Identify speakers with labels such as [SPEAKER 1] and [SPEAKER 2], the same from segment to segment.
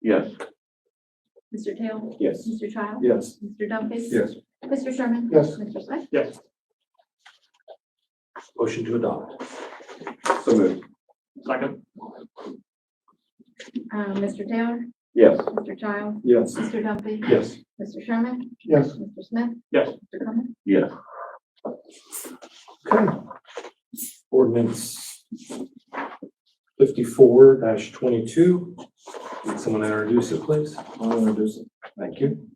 [SPEAKER 1] Yes.
[SPEAKER 2] Mr. Taylor?
[SPEAKER 1] Yes.
[SPEAKER 2] Mr. Child?
[SPEAKER 1] Yes.
[SPEAKER 2] Mr. Dumpy?
[SPEAKER 1] Yes.
[SPEAKER 2] Mr. Sherman?
[SPEAKER 1] Yes.
[SPEAKER 2] Mr. Swift?
[SPEAKER 1] Yes.
[SPEAKER 3] Motion to adopt.
[SPEAKER 1] So moved.
[SPEAKER 3] Second.
[SPEAKER 2] Uh, Mr. Taylor?
[SPEAKER 1] Yes.
[SPEAKER 2] Mr. Child?
[SPEAKER 1] Yes.
[SPEAKER 2] Mr. Dumpy?
[SPEAKER 1] Yes.
[SPEAKER 2] Mr. Sherman?
[SPEAKER 1] Yes.
[SPEAKER 2] Mr. Smith?
[SPEAKER 3] Yes.
[SPEAKER 2] Mr. Clement?
[SPEAKER 1] Yes.
[SPEAKER 3] Ordinance fifty-four twenty-two. Would someone introduce it, please?
[SPEAKER 1] I'll introduce it.
[SPEAKER 3] Thank you.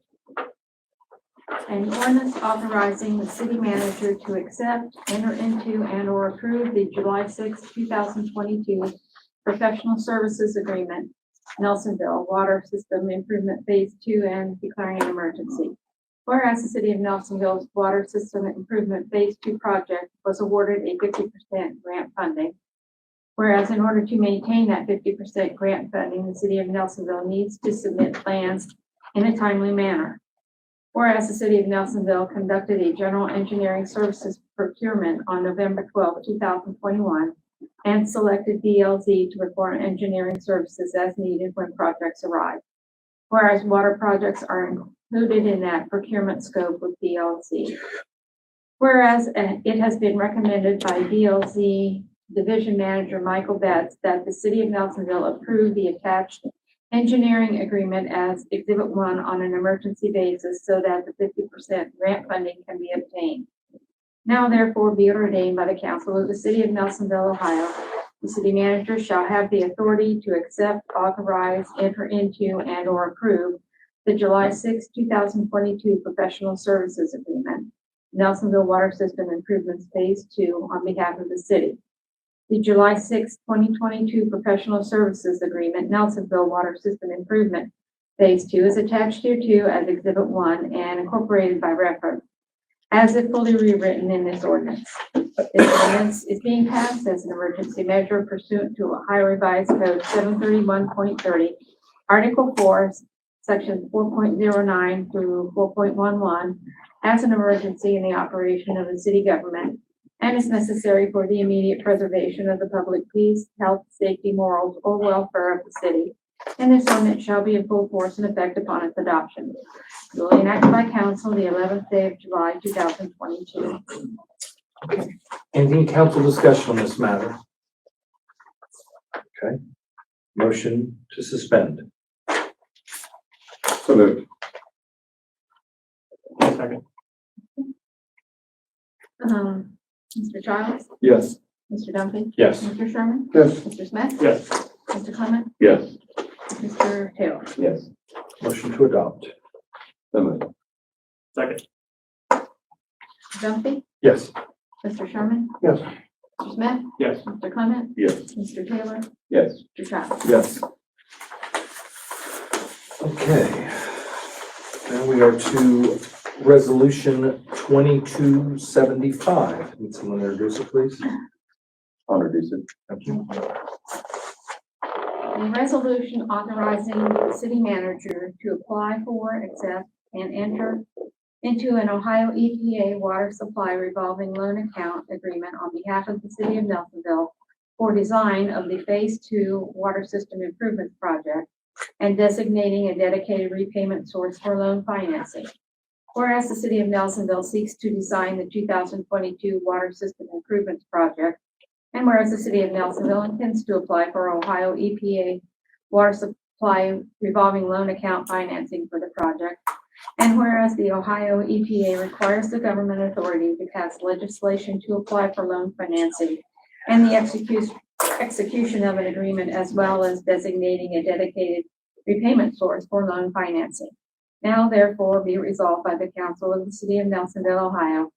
[SPEAKER 2] An ordinance authorizing the city manager to accept, enter into, and/or approve the July 6, 2022 professional services agreement, Nelsonville Water System Improvement Phase 2 and declaring an emergency. Whereas the city of Nelsonville's Water System Improvement Phase 2 project was awarded a 50% grant funding. Whereas in order to maintain that 50% grant funding, the city of Nelsonville needs to submit plans in a timely manner. Whereas the city of Nelsonville conducted a general engineering services procurement on November 12, 2021, and selected DLZ to perform engineering services as needed when projects arrive. Whereas water projects are included in that procurement scope with DLZ. Whereas uh, it has been recommended by DLZ Division Manager Michael Betts that the city of Nelsonville approve the attached engineering agreement as Exhibit 1 on an emergency basis so that the 50% grant funding can be obtained. Now therefore be it ordained by the council of the city of Nelsonville, Ohio. The city manager shall have the authority to accept, authorize, enter into, and/or approve the July 6, 2022 professional services agreement, Nelsonville Water System Improvements Phase 2 on behalf of the city the July 6, 2022 Professional Services Agreement, Nelsonville Water System Improvement Phase 2 is attached here too as Exhibit 1 and incorporated by reference as if fully rewritten in this ordinance. This ordinance is being passed as an emergency measure pursuant to Ohio Revised Code 731.30, Article 4, Section 4.09 through 4.11, as an emergency in the operation of the city government and is necessary for the immediate preservation of the public peace, health, safety, morals, or welfare of the city. And this ordinance shall be in full force and effect upon its adoption. duly enacted by council the eleventh day of July, two thousand twenty-two.
[SPEAKER 3] Any council discussion on this matter? Okay. Motion to suspend.
[SPEAKER 1] So moved.
[SPEAKER 3] Second.
[SPEAKER 2] Um, Mr. Childs?
[SPEAKER 1] Yes.
[SPEAKER 2] Mr. Dumpy?
[SPEAKER 3] Yes.
[SPEAKER 2] Mr. Sherman?
[SPEAKER 1] Yes.
[SPEAKER 2] Mr. Smith?
[SPEAKER 3] Yes.
[SPEAKER 2] Mr. Clement?
[SPEAKER 1] Yes.
[SPEAKER 2] Mr. Taylor?
[SPEAKER 1] Yes.
[SPEAKER 3] Motion to adopt.
[SPEAKER 1] So moved.
[SPEAKER 3] Second.
[SPEAKER 2] Dumpy?
[SPEAKER 3] Yes.
[SPEAKER 2] Mr. Sherman?
[SPEAKER 1] Yes.
[SPEAKER 2] Mr. Smith?
[SPEAKER 3] Yes.
[SPEAKER 2] Mr. Clement?
[SPEAKER 1] Yes.
[SPEAKER 2] Mr. Taylor?
[SPEAKER 1] Yes.
[SPEAKER 2] Mr. Childs?
[SPEAKER 1] Yes.
[SPEAKER 3] Okay. Now we are to resolution twenty-two seventy-five. Would someone introduce it, please?
[SPEAKER 1] I'll introduce it.
[SPEAKER 3] Thank you.
[SPEAKER 2] A resolution authorizing the city manager to apply for, accept, and enter into an Ohio EPA water supply revolving loan account agreement on behalf of the city of Nelsonville for design of the Phase Two Water System Improvement Project and designating a dedicated repayment source for loan financing. Whereas the city of Nelsonville seeks to design the two thousand twenty-two Water System Improvements Project and whereas the city of Nelsonville intends to apply for Ohio EPA water supply revolving loan account financing for the project. And whereas the Ohio EPA requires the government authority to pass legislation to apply for loan financing and the execution, execution of an agreement as well as designating a dedicated repayment source for loan financing. Now therefore be resolved by the council of the city of Nelsonville, Ohio,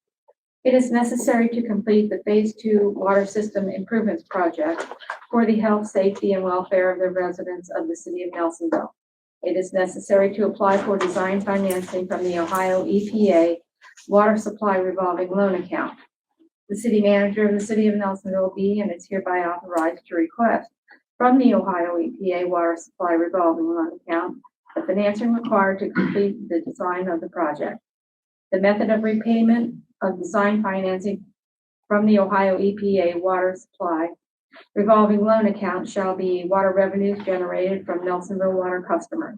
[SPEAKER 2] it is necessary to complete the Phase Two Water System Improvements Project for the health, safety, and welfare of the residents of the city of Nelsonville. It is necessary to apply for design financing from the Ohio EPA Water Supply Revolving Loan Account. The city manager of the city of Nelsonville be and is hereby authorized to request from the Ohio EPA Water Supply Revolving Loan Account the financing required to complete the design of the project. The method of repayment of design financing from the Ohio EPA E Water Supply Revolving loan account shall be water revenues generated from Nelsonville water customers.